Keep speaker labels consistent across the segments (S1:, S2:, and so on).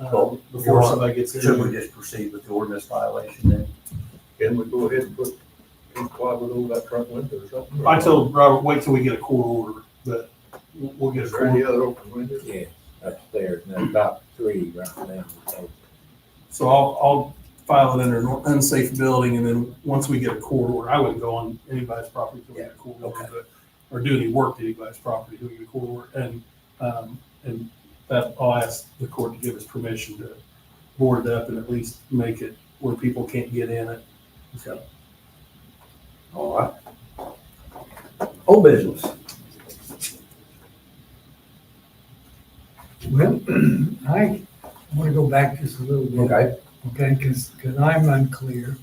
S1: uh,
S2: Well,
S1: before somebody gets
S2: Should we
S1: in.
S2: just proceed with the ordinance violation then?
S3: Can we go ahead and put, inquire with all that front window or something?
S1: I told Robert, wait till we get a court order, but we'll we'll get a
S3: Is there any
S1: court.
S3: other open windows?
S4: Yeah, upstairs, and there's about three right now. So,
S1: So I'll, I'll file it under an unsafe building and then once we get a court order, I wouldn't go on anybody's property till we get a court order. but- Or do any work to anybody's property till we get a court order. And, um, and that, I'll ask the court to give us permission to board it up and at least make it where people can't get in it. So
S2: All right. Old business.
S5: Well, I want to go back just a little bit,
S2: Okay.
S5: okay, because, I'm unclear.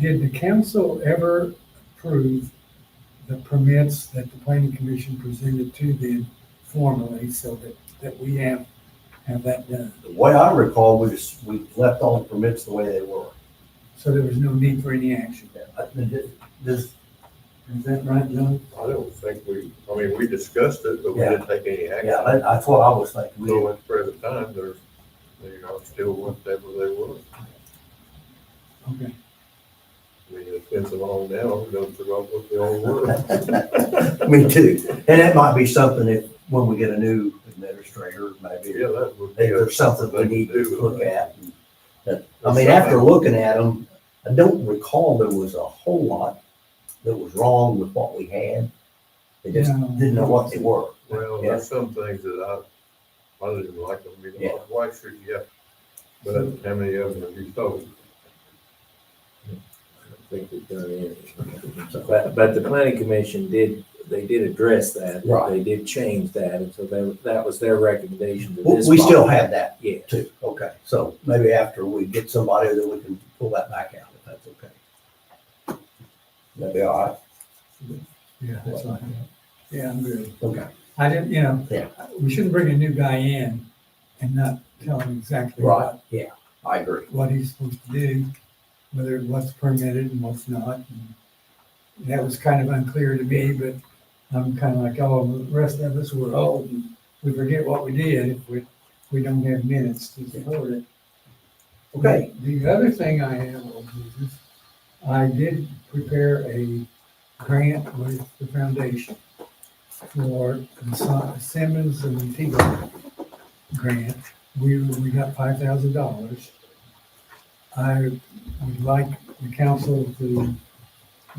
S5: Did the council ever approve the permits that the planning commission presented to them formally so that, that we have, have that done?
S2: The way I recall, we just, we left all the permits the way they were.
S5: So there was no need for any action.
S2: I- Does, does-
S5: Is that right, John?
S3: I don't think we, I mean, we discussed it, but we
S2: Yeah.
S3: didn't take any action.
S2: yeah, that- that's what I was thinking.
S3: So at the present time, there's, you know, still whatever they were.
S5: Okay.
S3: I mean, it's been so long now, I don't forgot what they all were.
S2: Me too. And that might be something if, when we get a new administrator, maybe,
S3: Yeah, that would be.
S2: if
S3: a-
S2: there's something we
S3: they
S2: need
S3: could
S2: to
S3: do.
S2: look at. That- I mean, after looking at them, I don't recall there was a whole lot that was wrong with what we had. They just
S5: No.
S2: didn't know what they were.
S3: Well,
S2: Yeah.
S3: there's some things that I, I didn't like them, you
S2: Yeah.
S3: know, why should you have? But how many of them have you sold?
S4: I don't think we've done anything. But, but the planning commission did, they did address that.
S2: Right.
S4: They did change that, and so that, that was their recommendation to
S2: We
S4: this.
S2: we still
S4: body.
S2: have that
S4: Yeah,
S2: too. Okay, so maybe after we get somebody that we can pull that back out, if that's okay. That'd be all right.
S5: Yeah, that's right. Yeah, I'm good.
S2: Okay.
S5: I didn't, you know,
S2: Yeah.
S5: we shouldn't bring a new guy in and not tell him exactly what
S2: Right, yeah, I agree.
S5: what he's supposed to do, whether what's permitted and what's not. and That was kind of unclear to me, but I'm kind of like, oh, the rest of us, we're old and we forget what we did if we, we don't have minutes to support it.
S2: Okay,
S5: The other thing I have, old business, I did prepare a grant with the foundation for the Sim- Simmons and Teagle grant. We, we got five thousand dollars. I would like the council to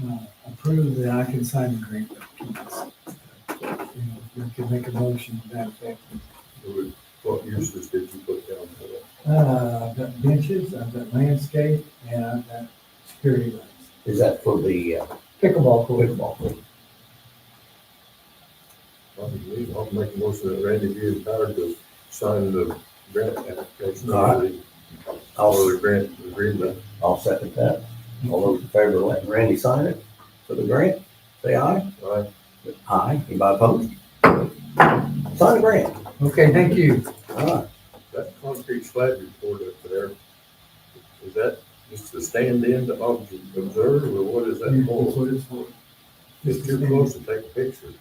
S5: uh, approve that I can sign the grant. documents. You know, You can make a motion to that effect.
S3: It was- What uses did you put down for that?
S5: Uh, I've got benches, I've got landscape, and I've got security lights.
S2: is that for the uh,
S5: Pickleball court.
S2: pickleball court?
S3: I believe I'll make a motion that Randy be empowered to sign the grant application.
S2: All
S3: right.
S2: I'll,
S3: Or the grant agreement.
S2: I'll second that. All those in favor of letting Randy sign it for the grant, say aye.
S3: Aye.
S2: Aye. Anybody opposed? Sign the grant.
S5: Okay, thank you.
S2: All right.
S3: That concrete slab you poured up there, is that just to stand in to ob- observe, or what is that for? It's too close to take a picture.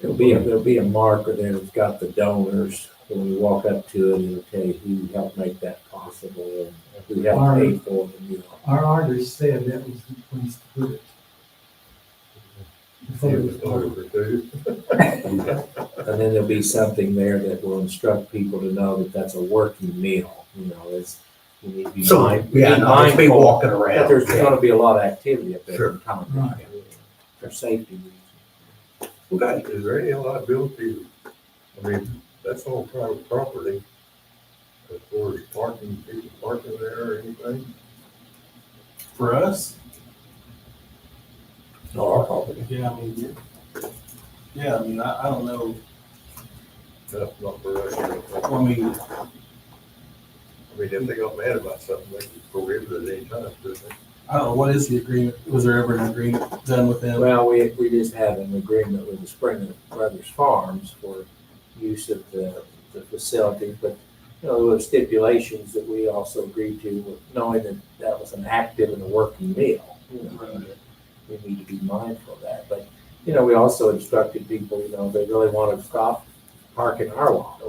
S4: there'll be, a- there'll be a marker there that's got the donors, when we walk up to it, it'll tell you who helped make that possible, and who helped pay for it, and you know.
S5: Our artist said that was the place to put it. Before it was part
S4: And then there'll be something there that will instruct people to know that that's a working meal, you know, it's, you need to be
S2: So,
S4: mind- be
S2: yeah, no, there's people
S4: mindful
S2: walking
S4: That
S2: around.
S4: there's
S2: Yeah.
S4: gonna be a lot of activity up there
S2: Sure.
S4: in town.
S5: Right.
S4: For safety reasons.
S2: Okay.
S3: Is there any liability? I mean, that's all private property. As far as parking, people parking there or anything?
S1: for us,
S2: Not our property.
S1: yeah, I mean, yeah. yeah, I mean, I, I don't know.
S3: That's not for us. I don't think.
S1: I mean,
S3: I mean, if they got mad about something, they could prohibit it at any time, couldn't they?
S1: I don't know, what is the agreement? Was there ever an agreement done with them?
S4: Well, we, we just have an agreement with the Springer Brothers Farms for use of the, the facility, but, you know, there were stipulations that we also agreed to, with knowing that that was an active and a working meal, you know.
S1: Right.
S4: we need to be mindful of that. But, you know, we also instructed people, you know, they really want to stop parking our lot